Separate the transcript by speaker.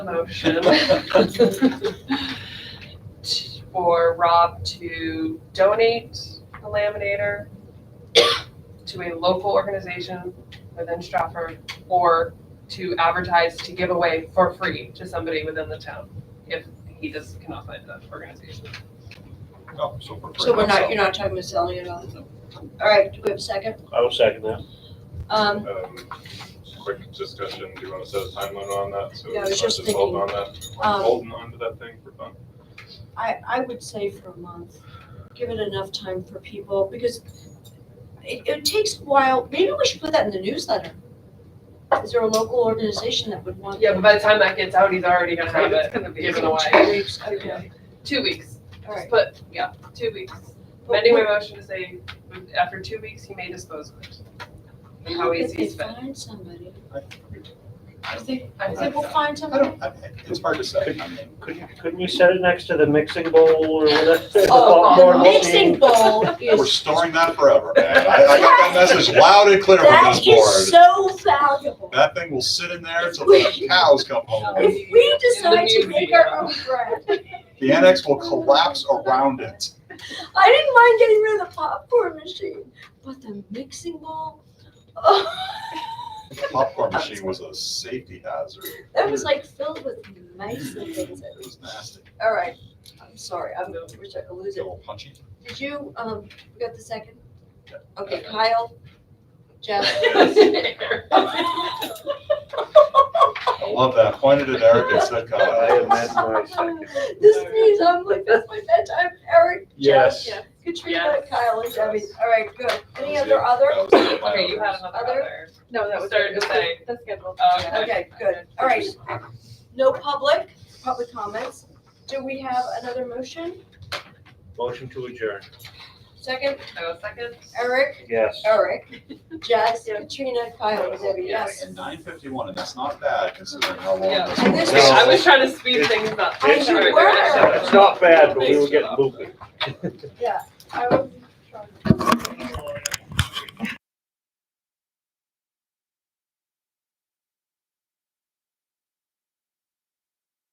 Speaker 1: motion t- for Rob to donate the laminator to a local organization within Stratford or to advertise to give away for free to somebody within the town if he just cannot find that organization.
Speaker 2: Oh, so we're.
Speaker 3: So we're not, you're not talking about selling it off. All right, do we have a second?
Speaker 4: I will second that.
Speaker 3: Um,
Speaker 2: Um, Quick discussion, do you want to set a time limit on that? So
Speaker 3: Yeah, I was
Speaker 2: it's not
Speaker 3: just
Speaker 2: holding on that,
Speaker 3: um,
Speaker 2: holding on to that thing for fun.
Speaker 3: I, I would say for a month, give it enough time for people, because it, it takes a while, maybe we should put that in the newsletter. Is there a local organization that would want?
Speaker 1: Yeah, but by the time that gets out, he's already gonna have
Speaker 5: It's
Speaker 1: it
Speaker 5: gonna be.
Speaker 1: given
Speaker 3: Two
Speaker 1: away.
Speaker 3: weeks, okay,
Speaker 1: Two weeks.
Speaker 3: all
Speaker 1: Just
Speaker 3: right.
Speaker 1: put, yeah, two weeks. Amending my motion to say, after two weeks, he may dispose of it. And how he
Speaker 3: If they
Speaker 1: sees fit.
Speaker 3: find somebody,
Speaker 1: I think, I
Speaker 3: if they
Speaker 1: think
Speaker 3: will find
Speaker 2: I
Speaker 3: somebody,
Speaker 2: don't, I- it's hard to say. I mean,
Speaker 4: Couldn't, couldn't you set it next to the mixing bowl or whatever? the
Speaker 1: Oh,
Speaker 4: popcorn
Speaker 3: the
Speaker 1: Lord,
Speaker 3: mixing bowl
Speaker 2: We're
Speaker 3: is,
Speaker 2: storing that forever, man. I, I got that message loud and clear from
Speaker 3: that
Speaker 2: this
Speaker 3: is
Speaker 2: board.
Speaker 3: so valuable.
Speaker 2: That thing will sit in there until the cows come home.
Speaker 3: If we decide to make our own bread,
Speaker 2: The annex will collapse around it.
Speaker 3: I didn't mind getting rid of the popcorn machine, but the mixing bowl, oh,
Speaker 2: The popcorn machine was a safety hazard.
Speaker 3: that was like filled with mice and things.
Speaker 2: It was nasty.
Speaker 3: All right, I'm sorry, I'm, we're starting to lose
Speaker 2: It's a
Speaker 3: it.
Speaker 2: little punchy.
Speaker 3: Did you, um, we got the second?
Speaker 2: Yeah.
Speaker 3: Okay, Kyle, Jeff.
Speaker 2: I love that. Pointed at Eric and said,
Speaker 4: I
Speaker 2: "God."
Speaker 4: amend my second.
Speaker 3: This means I'm like, that's my bedtime, Eric, Jeff,
Speaker 4: Yes.
Speaker 1: Yeah.
Speaker 3: Katrina,
Speaker 1: Yes.
Speaker 3: Kyle, and Debbie. All right, good. Any
Speaker 2: That was
Speaker 3: other
Speaker 2: it.
Speaker 3: other?
Speaker 2: That was it.
Speaker 1: Okay, you had another
Speaker 3: Other?
Speaker 1: other.
Speaker 5: No, that was.
Speaker 1: Start to say.
Speaker 5: The schedule.
Speaker 1: Uh,
Speaker 3: Okay, good. All right. No public, public comments. Do we have another motion?
Speaker 4: Motion to adjourn.
Speaker 3: Second,
Speaker 1: I will second.
Speaker 3: Eric,
Speaker 4: Yes.
Speaker 3: Eric, Jess, Katrina, Kyle, and Debbie, yes.
Speaker 2: Nine fifty-one, and that's not bad considering how long
Speaker 1: Yeah.
Speaker 2: this
Speaker 3: And this
Speaker 2: was.
Speaker 4: No.
Speaker 1: I was trying to speed things up.
Speaker 3: I should
Speaker 1: Sorry.
Speaker 3: work.
Speaker 4: It's not bad, but we were getting loopy.
Speaker 3: Yeah. I will.